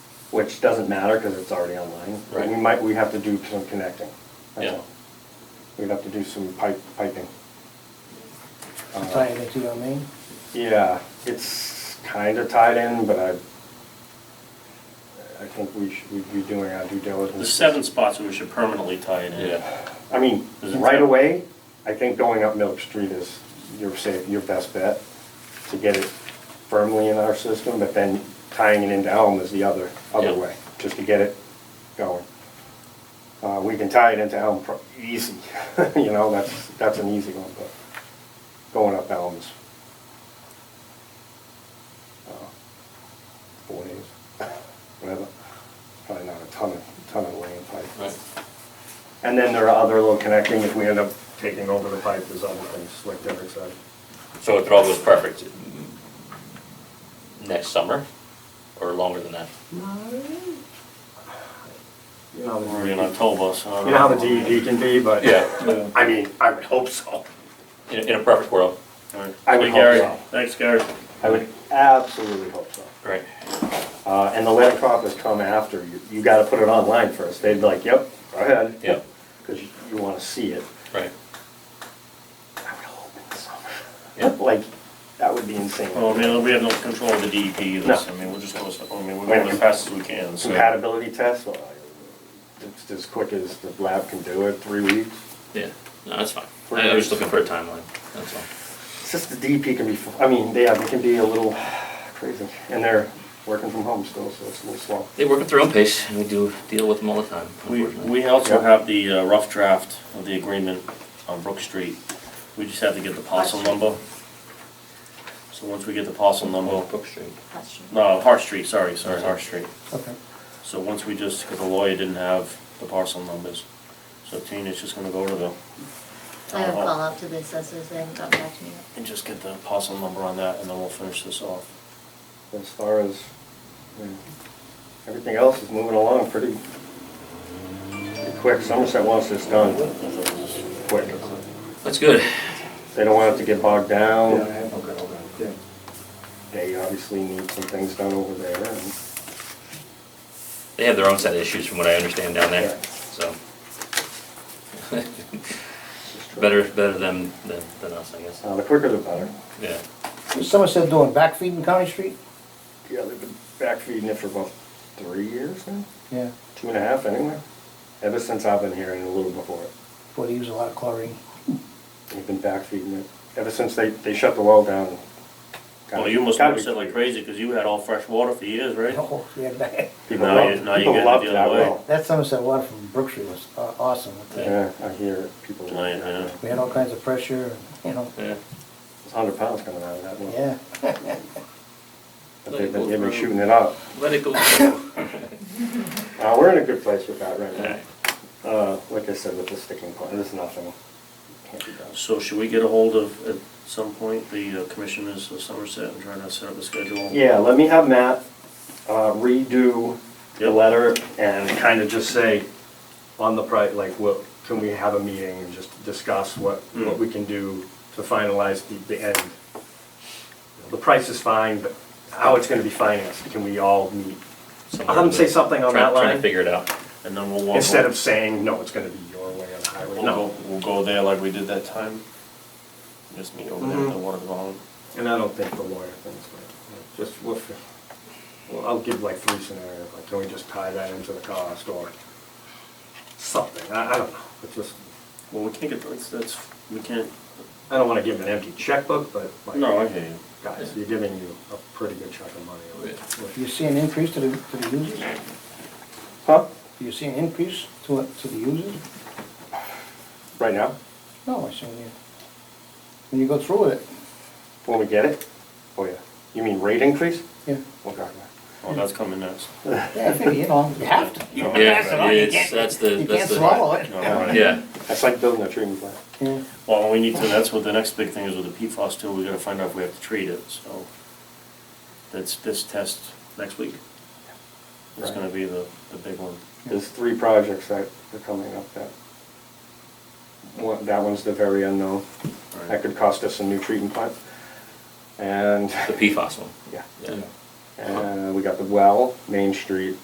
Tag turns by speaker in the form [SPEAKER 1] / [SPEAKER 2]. [SPEAKER 1] which doesn't matter because it's already online. But We
[SPEAKER 2] Right.
[SPEAKER 1] might, we have to do some connecting. that's
[SPEAKER 2] Yeah.
[SPEAKER 1] all. We'd have to do some pipe, piping. Uh,
[SPEAKER 3] Tie it into your main?
[SPEAKER 1] Yeah, it's kind of tied in, but I, I think we should, we'd be doing our due diligence.
[SPEAKER 4] There's seven spots where we should permanently tie it in.
[SPEAKER 2] Yeah,
[SPEAKER 1] I mean,
[SPEAKER 4] Is it
[SPEAKER 1] right
[SPEAKER 4] seven?
[SPEAKER 1] away, I think going up Milk Street is your safe, your best bet to get it firmly in our system, but then tying it into Elm is the other, other
[SPEAKER 2] Yeah.
[SPEAKER 1] way, just to get it going. Uh, we can tie it into Elm pro- easy, you know, that's, that's an easy one, but going up Elm is uh, four days, whatever. Probably not a ton of, ton of lane pipe.
[SPEAKER 2] right.
[SPEAKER 1] And then there are other little connecting, if we end up taking over the pipe, there's other things, like Derek said.
[SPEAKER 2] So if it all goes perfect, next summer or longer than that?
[SPEAKER 1] You know
[SPEAKER 4] We're in
[SPEAKER 1] how
[SPEAKER 4] October, so. I
[SPEAKER 1] the- Um,
[SPEAKER 4] don't
[SPEAKER 1] you know how the
[SPEAKER 4] know.
[SPEAKER 1] DED can be, but,
[SPEAKER 2] Yeah.
[SPEAKER 1] I mean, I would hope so.
[SPEAKER 2] In, in a perfect world,
[SPEAKER 4] All right.
[SPEAKER 1] I would
[SPEAKER 4] Hey,
[SPEAKER 1] hope
[SPEAKER 4] Gary.
[SPEAKER 1] so.
[SPEAKER 4] Thanks, Gary.
[SPEAKER 1] I would absolutely hope so.
[SPEAKER 2] right?
[SPEAKER 1] Uh, and the letter crop has come after, you, you gotta put it online first, they'd be like, yep, go ahead.
[SPEAKER 2] Yep.
[SPEAKER 1] Cause you, you wanna see it.
[SPEAKER 2] Right.
[SPEAKER 1] I would hope in the summer.
[SPEAKER 2] Yep.
[SPEAKER 1] Like, that would be insane.
[SPEAKER 4] Well, I mean, we have no control of the DEP either,
[SPEAKER 1] No.
[SPEAKER 4] so, I mean, we're just going, I mean, we're going as fast as we can, so.
[SPEAKER 1] Compatibility test, well, it's as quick as the lab can do it, three weeks.
[SPEAKER 2] Yeah, no, that's fine. I, I was just looking for a timeline, that's all.
[SPEAKER 1] It's just the DP can be, I mean, they, they can be a little crazy, and they're working from home still, so it's a little slow.
[SPEAKER 2] They work at their own pace and we do deal with them all the time,
[SPEAKER 4] We,
[SPEAKER 2] unfortunately.
[SPEAKER 4] we also
[SPEAKER 1] Yep.
[SPEAKER 4] have the uh, rough draft of the agreement on Brook Street. We just have to get the parcel number. So once we get the parcel number,
[SPEAKER 2] Brook Street.
[SPEAKER 5] Question.
[SPEAKER 4] no, Hart Street, sorry, sorry, Hart Street.
[SPEAKER 3] Okay.
[SPEAKER 4] So once we just, because the lawyer didn't have the parcel numbers, so Tina's just gonna go to the
[SPEAKER 5] I
[SPEAKER 4] town
[SPEAKER 5] have a call
[SPEAKER 4] hall
[SPEAKER 5] out to the assessors, they haven't gotten back to me yet.
[SPEAKER 4] and just get the parcel number on that, and then we'll finish this off.
[SPEAKER 1] As far as, I mean, everything else is moving along pretty, pretty quick. Somerset wants this done quick.
[SPEAKER 2] That's good.
[SPEAKER 1] They don't want it to get bogged down.
[SPEAKER 3] have, okay, okay, yeah.
[SPEAKER 1] They obviously need some things done over there, and
[SPEAKER 2] They have their own set of issues from what I understand down there,
[SPEAKER 1] Yeah.
[SPEAKER 2] so. Better, better them than, than us, I guess.
[SPEAKER 4] Um,
[SPEAKER 1] uh, the quicker the better.
[SPEAKER 2] Yeah,
[SPEAKER 3] Is Somerset doing backfeed in County Street?
[SPEAKER 1] Yeah, they've been back feeding it for about three years now,
[SPEAKER 3] Yeah,
[SPEAKER 1] two and a half anyway, ever since I've been here and a little before it.
[SPEAKER 3] boy, they use a lot of chlorine.
[SPEAKER 1] They've been backfeeding it ever since they, they shut the well down.
[SPEAKER 4] Well, you must
[SPEAKER 1] Gotta
[SPEAKER 4] notice
[SPEAKER 1] be-
[SPEAKER 4] it like crazy, because you had all fresh water for years, right?
[SPEAKER 3] Oh, yeah, that-
[SPEAKER 1] People
[SPEAKER 4] Now you-
[SPEAKER 1] love,
[SPEAKER 4] now you
[SPEAKER 1] people
[SPEAKER 4] get it
[SPEAKER 1] love
[SPEAKER 4] the
[SPEAKER 1] that
[SPEAKER 4] other way.
[SPEAKER 1] well.
[SPEAKER 3] That Somerset water from Brook Street was uh, awesome.
[SPEAKER 1] Yeah, I hear it, people
[SPEAKER 4] Oh, yeah,
[SPEAKER 1] love
[SPEAKER 4] yeah.
[SPEAKER 1] that.
[SPEAKER 3] We had all kinds of pressure, and, you know,
[SPEAKER 2] yeah.
[SPEAKER 1] It's hundred pounds coming out of that well.
[SPEAKER 3] yeah.
[SPEAKER 1] But they've been, they've been shooting it up.
[SPEAKER 2] Let it go. All
[SPEAKER 1] Uh, we're in a good place with that right
[SPEAKER 2] right.
[SPEAKER 1] now. Uh, like I said, with the sticking point, there's nothing. Can't be done.
[SPEAKER 4] So should we get a hold of, at some point, the uh, commissioners of Somerset and try to set up a schedule?
[SPEAKER 1] Yeah, let me have Matt uh, redo the
[SPEAKER 4] Yep.
[SPEAKER 1] letter and kind of just say on the pri, like, what, can we have a meeting and just discuss what, what
[SPEAKER 4] Mm.
[SPEAKER 1] we can do to finalize the, the end? The price is fine, but how it's gonna be financed, can we all meet?
[SPEAKER 2] Somewhere
[SPEAKER 1] I'll have him
[SPEAKER 2] in
[SPEAKER 1] say
[SPEAKER 2] the-
[SPEAKER 1] something on
[SPEAKER 2] try-
[SPEAKER 1] that
[SPEAKER 2] Trying to
[SPEAKER 1] line,
[SPEAKER 2] figure it out.
[SPEAKER 4] And then we'll walk.
[SPEAKER 1] instead
[SPEAKER 4] over-
[SPEAKER 1] of saying, no, it's gonna be your way on the highway,
[SPEAKER 4] We'll
[SPEAKER 1] no.
[SPEAKER 4] go, we'll go there like we did that time. Just meet over there at the water column.
[SPEAKER 1] And I don't think the lawyer thinks, but, just, we'll, fi- well, I'll give like three scenarios, like, can we just tie that into the cost, or something, I, I don't know, it's just,
[SPEAKER 4] Well, we can't get, that's, that's, we can't.
[SPEAKER 1] I don't wanna give him an empty checkbook, but like.
[SPEAKER 4] hear you. Oh,
[SPEAKER 1] Guys, you're giving you a pretty good chunk of money.
[SPEAKER 2] Yeah.
[SPEAKER 3] Do you
[SPEAKER 1] with-
[SPEAKER 3] see an increase to the, to the users?
[SPEAKER 1] Huh?
[SPEAKER 3] Do you see an increase to, to the users?
[SPEAKER 1] Right now,
[SPEAKER 3] No, I see, yeah. When you go through with it,
[SPEAKER 1] when we get it? Oh, yeah. You mean rate increase?
[SPEAKER 3] yeah.
[SPEAKER 1] Okay.
[SPEAKER 4] Oh, that's coming next.
[SPEAKER 3] Yeah, I figure, you know, you have to.
[SPEAKER 4] You know,
[SPEAKER 2] Yeah, it's, that's the,
[SPEAKER 3] You
[SPEAKER 2] that's
[SPEAKER 3] can't
[SPEAKER 2] the.
[SPEAKER 3] swallow it.
[SPEAKER 4] All right.
[SPEAKER 2] Yeah,
[SPEAKER 1] That's like building a treatment plant.
[SPEAKER 3] Yeah.
[SPEAKER 4] Well, we need to, that's what the next big thing is with the PFAS too, we gotta find out if we have to treat it, so. That's this test next week. It's
[SPEAKER 1] Right.
[SPEAKER 4] gonna be the, the big one.
[SPEAKER 1] There's three projects that are coming up that, one, that one's the very unknown. That
[SPEAKER 4] Right.
[SPEAKER 1] could cost us a new treatment plant. And,
[SPEAKER 2] the PFAS one.
[SPEAKER 1] yeah.
[SPEAKER 2] Yeah.
[SPEAKER 1] And we got the well, Main Street,